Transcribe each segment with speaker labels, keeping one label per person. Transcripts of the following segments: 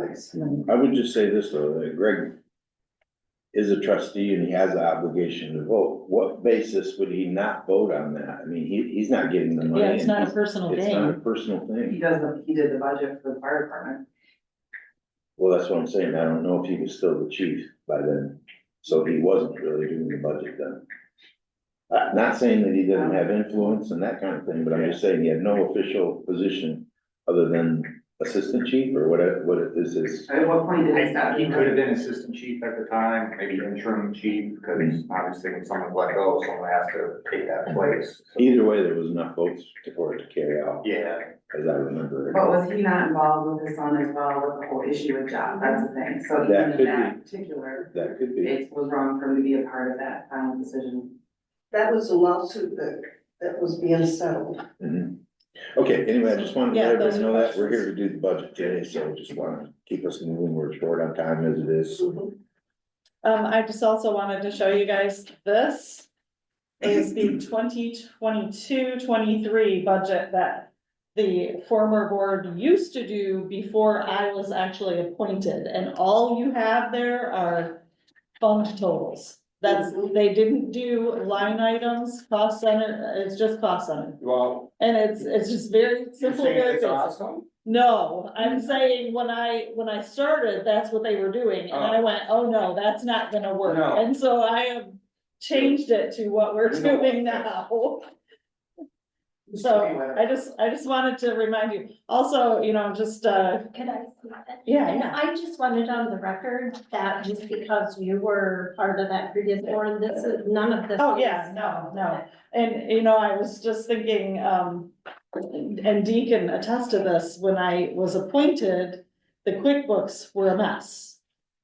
Speaker 1: Yes.
Speaker 2: I would just say this though, that Greg is a trustee and he has the obligation to vote. What basis would he not vote on that? I mean, he, he's not getting the money.
Speaker 3: Oh, Yeah, it's not a personal
Speaker 2: It's not a
Speaker 3: thing.
Speaker 2: personal
Speaker 1: He
Speaker 2: thing.
Speaker 1: does, the- he did the budget for the fire department.
Speaker 2: Well, that's what I'm saying. I don't know if he was still the chief by then. So he wasn't really doing the budget then. Uh, not saying that he didn't have influence and that kind of thing, but I'm just saying he had no official position other than assistant chief or whatever, what it is, is.
Speaker 1: At what point did it
Speaker 4: I
Speaker 1: stop?
Speaker 4: think he could have been assistant chief at the time, maybe interim chief, because obviously when someone's let go, someone has to take that place. So,
Speaker 2: Either way, there was enough votes to- for it to carry out.
Speaker 4: Yeah,
Speaker 2: as I remember.
Speaker 1: But was he not involved with his son as well, with the whole issue with John, that's the thing, so
Speaker 2: That
Speaker 1: even
Speaker 2: could
Speaker 1: in
Speaker 2: be.
Speaker 1: that particular,
Speaker 2: That could be.
Speaker 1: it was wrong for him to be a part of that final decision.
Speaker 5: That was a lawsuit that, that was being settled.
Speaker 2: Mhm. Okay, anyway, I just wanted to
Speaker 3: Yeah,
Speaker 2: let everybody
Speaker 3: those
Speaker 2: know
Speaker 3: are
Speaker 2: that we're here to do
Speaker 3: questions.
Speaker 2: the budget today, so just wanna keep us moving. We're short on time as it is.
Speaker 3: Um, I just also wanted to show you guys this. Is the 2022-23 budget that the former board used to do before I was actually appointed. And all you have there are fund totals. That's, they didn't do line items, cost center, it's just cost center.
Speaker 4: well,
Speaker 3: And it's, it's just very
Speaker 4: you're
Speaker 3: simple.
Speaker 4: saying
Speaker 3: very
Speaker 4: it's
Speaker 3: basic.
Speaker 4: awesome?
Speaker 3: No, I'm saying when I, when I started, that's what they were doing, and I went, oh no, that's not gonna work,
Speaker 4: No.
Speaker 3: and so I have. Changed it to what we're
Speaker 4: You know.
Speaker 3: doing now. So I just, I just wanted to remind you, also, you know, just, uh,
Speaker 6: Could I see that?
Speaker 3: yeah,
Speaker 6: And
Speaker 3: yeah.
Speaker 6: I just wanted on the record that just because you were part of that previous board, this is, none of this.
Speaker 3: Oh, yeah,
Speaker 6: is-
Speaker 3: no, no. And, you know, I was just thinking, um, and Dee can attest to this, when I was appointed, the QuickBooks were a mess.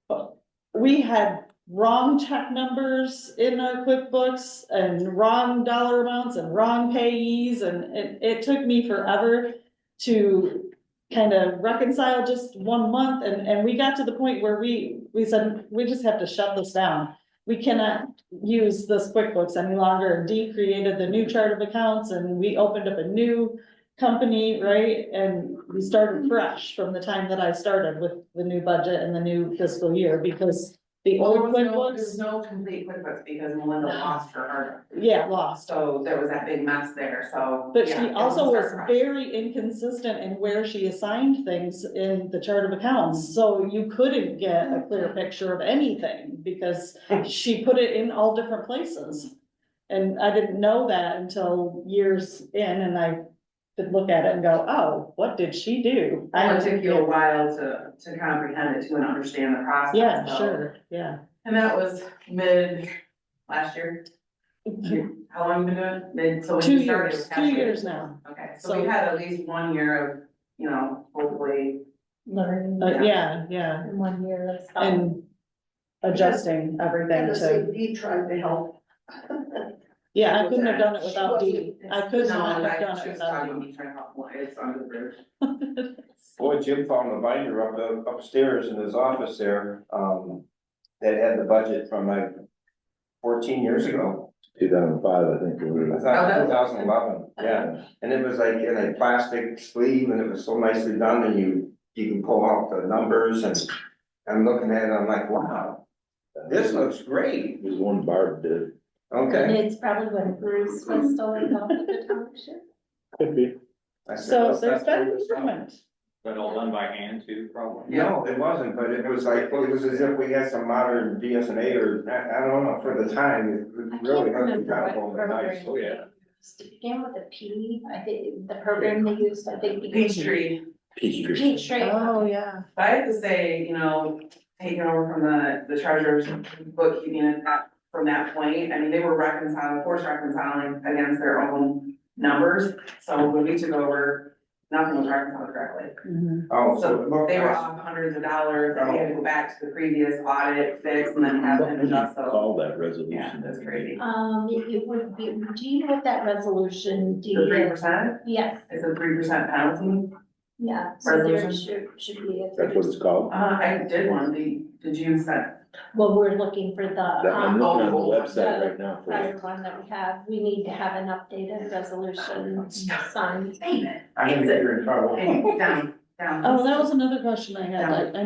Speaker 3: But We had wrong check numbers in our QuickBooks and wrong dollar amounts and wrong payees, and it, it took me forever to kind of reconcile just one month, and, and we got to the point where we, we said, we just have to shut this down. We cannot use this QuickBooks any longer. Dee created the new chart of accounts and we opened up a new company, right? And we started fresh from the time that I started with the new budget and the new fiscal year because the
Speaker 1: Well,
Speaker 3: old
Speaker 1: there was no- There's
Speaker 3: QuickBooks,
Speaker 1: no complete QuickBooks because Melinda lost her art,
Speaker 3: yeah, lost.
Speaker 1: so there was that big mess there, so.
Speaker 3: But
Speaker 1: yeah,
Speaker 3: she
Speaker 1: it
Speaker 3: also was
Speaker 1: her project.
Speaker 3: very inconsistent in where she assigned things in the chart of accounts, so you couldn't get a clear picture of anything because she put it in all different places. And I didn't know that until years in and I could look at it and go, oh, what did she do?
Speaker 1: Well, It took you a while to, to comprehend it, to and understand the process.
Speaker 3: Yeah,
Speaker 1: so-
Speaker 3: sure, yeah.
Speaker 1: And that was mid last year, how long you been doing, it? mid, so when
Speaker 3: Two
Speaker 1: you started. it
Speaker 3: years,
Speaker 1: was
Speaker 3: two
Speaker 1: halfway.
Speaker 3: years now,
Speaker 1: Okay, so
Speaker 3: So-
Speaker 1: we had at least one year of, you know, hopefully,
Speaker 6: Learning
Speaker 3: Uh, yeah, yeah,
Speaker 6: in one year of stuff.
Speaker 1: Um,
Speaker 3: and adjusting everything
Speaker 5: And
Speaker 3: to.
Speaker 5: the CD tried to help.
Speaker 3: Yeah, I couldn't have done it without
Speaker 5: She
Speaker 3: Dee. I could not have done it without Dee.
Speaker 1: It's under the bridge.
Speaker 7: Boy, Jim found a binder up upstairs in his office there, um, that had the budget from like fourteen years ago.
Speaker 2: Two thousand five, I think. it
Speaker 7: I
Speaker 2: was.
Speaker 3: Oh,
Speaker 7: thought two thousand eleven, yeah, and it was like in a plastic sleeve and it was so nicely done and you, you can pull out the numbers and I'm looking at it, I'm like, wow, this looks great,
Speaker 2: It was one Barb did.
Speaker 6: And
Speaker 7: okay.
Speaker 6: It's probably when Bruce was still involved with the township.
Speaker 2: Could be.
Speaker 7: I said,
Speaker 3: So
Speaker 7: "Let's
Speaker 3: there's
Speaker 7: not
Speaker 3: been
Speaker 7: throw this out."
Speaker 3: improvement.
Speaker 4: But all done by hand too, probably.
Speaker 7: No, it wasn't, but it was like, well, it was as if we had some modern BSNA or, I, I don't know, for the time, it
Speaker 6: I can't
Speaker 7: really looked
Speaker 6: remember what
Speaker 7: incredible and
Speaker 6: program
Speaker 7: nice.
Speaker 4: oh, yeah.
Speaker 6: they used. It began with a P, I think, the program they used, I think.
Speaker 1: Peachtree,
Speaker 2: Peachtree.
Speaker 6: Peachtree.
Speaker 3: Oh, yeah.
Speaker 1: I have to say, you know, taking over from the, the treasurer's bookkeeping at that, from that point, I mean, they were reconciling, forced reconciling against their own numbers. So when we took over, nothing was reconciled correctly.
Speaker 7: Oh, so.
Speaker 1: So they were
Speaker 7: well,
Speaker 1: off hundreds of dollars, and we had to go back to the previous audit fix and then have them adjust, so,
Speaker 2: Call that resolution.
Speaker 1: yeah, that's crazy.
Speaker 6: Um, it would be, do you know what that resolution, do
Speaker 1: The three
Speaker 6: you,
Speaker 1: percent,
Speaker 6: yes,
Speaker 1: it's a three percent penalty,
Speaker 6: yeah, so there should,
Speaker 1: Resolution?
Speaker 6: should be a.
Speaker 2: That's what it's called.
Speaker 1: uh, I did one, the, did you set?
Speaker 6: Well, we're looking for
Speaker 2: That,
Speaker 6: the,
Speaker 2: I'm
Speaker 6: um,
Speaker 2: looking
Speaker 1: uh, oh,
Speaker 2: on the website right now for
Speaker 6: prior
Speaker 2: it.
Speaker 6: one that we have, we need to have an updated resolution signed.
Speaker 1: Payment.
Speaker 7: I'm gonna get you in trouble.
Speaker 1: Down, down.
Speaker 3: Oh, that was another question I had, like, I